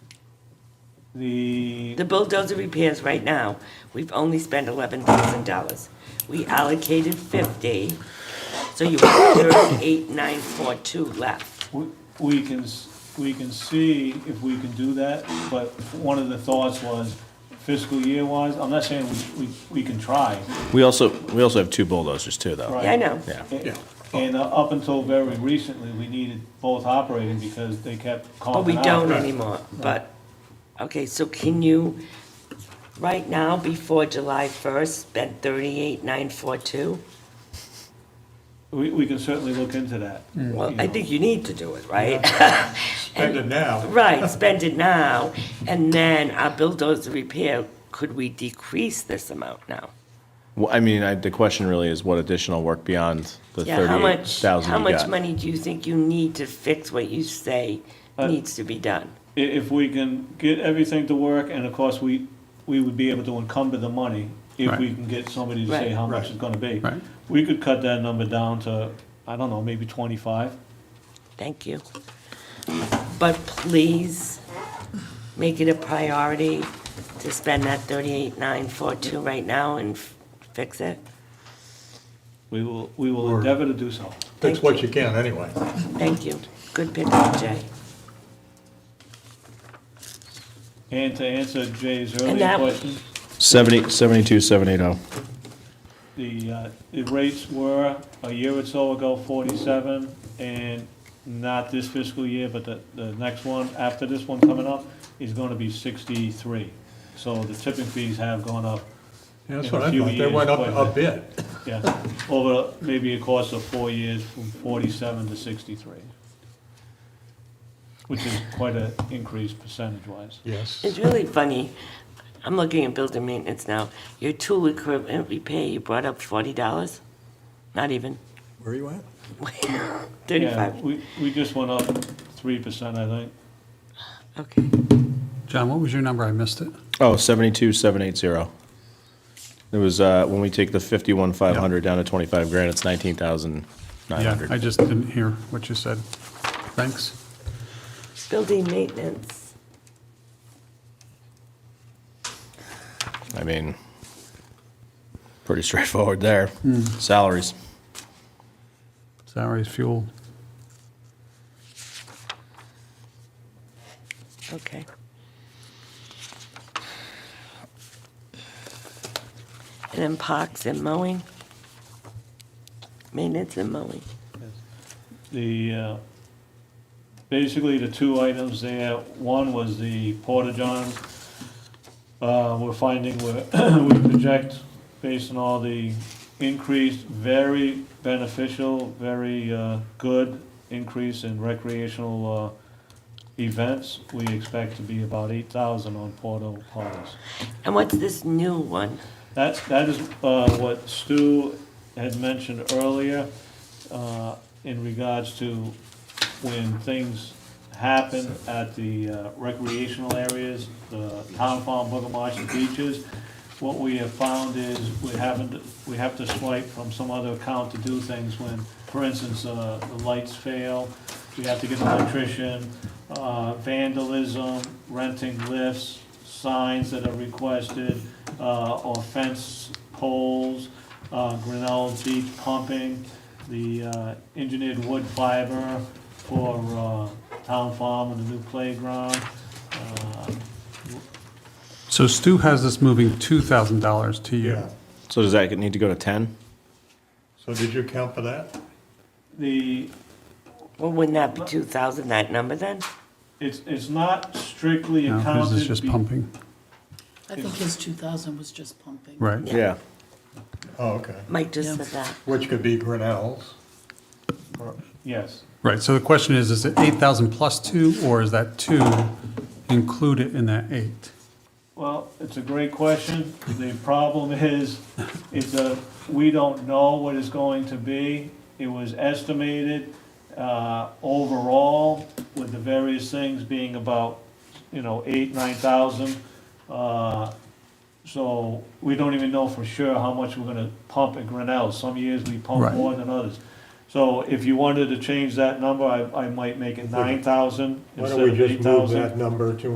The, The bulldozer repairs right now, we've only spent eleven thousand dollars. We allocated fifty, so you have thirty-eight, nine, four, two left. we- we can, s- we can see if we can do that, but one of the thoughts was fiscal year wise, I'm not saying we, we, we can try. We also, we also have two bulldozers too, though. right? Yeah, I know. Yeah. And- And uh, up until very recently, we needed both operating because they kept But we calling out. don't anymore, but, okay, so can you, right now, before July first, spend thirty-eight, nine, four, two? We, we can certainly look into that. Mm. Well, you I know. think you need to do it, right? Spend it now. Right, spend it now, and then our bulldozer repair, could we decrease this amount now? Well, I mean, I, the question really is what additional work beyond the Yeah, how thirty-eight much, thousand how you much got? money do you think you need to fix what you say Uh, needs to be done? I- If we can get everything to work, and of course, we, we would be able to encumber the money if we Right. can get somebody to say Right. how much Right. it's gonna be. Right. We could cut that number down to, I don't know, maybe twenty-five. Thank you. But please, make it a priority to spend that thirty-eight, nine, four, two right now and f- fix it. We will, we will Or- endeavor to do so. That's what you can, anyway. Thank you. Good pick up, Jay. And to answer Jay's that- earlier question, Seventy, seventy-two, seven eight oh. the, uh, the rates were a year or so ago forty-seven, and not this fiscal year, but the, the next one, after this one coming up, is gonna be sixty-three. So the tipping fees have gone up Yeah, That's In a what I few thought. They years, went up quite a a bit. Yeah, over maybe a course of four years, from forty-seven to sixty-three. Which is quite an increase percentage-wise. Yes. It's really funny. I'm looking at building maintenance now. Your tool equipment repair, you brought up forty dollars? Not even, Where you at? Yeah, thirty-five. we, we just went up three percent, I think. Okay. John, what was your number? I missed it. Oh, seventy-two, seven eight zero. It was, uh, when we take the fifty-one, five hundred down to twenty-five grand, it's nineteen thousand nine Yeah, I hundred. just didn't hear what you said. Thanks. Building maintenance. I mean, pretty straightforward there. Salaries. Salaries, fuel. Okay. And then parks and mowing. Maintenance and mowing. The, uh, basically the two items there, one was the porta johns. Uh, we're finding we're, we project based on all the increase, very beneficial, very, uh, good increase in recreational, uh, events. We expect to be about eight thousand on porta potties. And what's this new one? That, that is uh, what Stu had mentioned earlier uh, in regards to when things happen at the uh, recreational areas, the town farm, Boogamarsh, and beaches. What we have found is we haven't, we have to swipe from some other account to do things when, for instance, uh, the lights fail, we have to get an electrician, uh, vandalism, renting lifts, signs that are requested, uh, or fence poles, uh, Grinnell Beach pumping, the uh, engineered wood fiber for uh, town farm and the new playground. Uh, So Stu has this moving $2,000 to you. Yeah. So does that need to go to ten? So Oh, did you count for that? The, Well, wouldn't that be two thousand, that number then? it's, it's not strictly No, his accounted. is just be- pumping. I think his two thousand was just pumping. Right. Yeah. Oh, okay. Mike just Yeah. said that. Which could be Grinnell's. Yes, Right. So the question is, is it 8,000 plus two, or is that two included in that eight? well, it's a great question. The problem is, it's a, we don't know what it's going to be. It was estimated uh, overall with the various things being about, you know, eight, nine thousand. Uh, So we don't even know for sure how much we're gonna pump at Grinnell. Some years we pump Right. more than others. So if you wanted to change that number, I, I might make it nine thousand Why instead don't we of just eight move thousand. that number to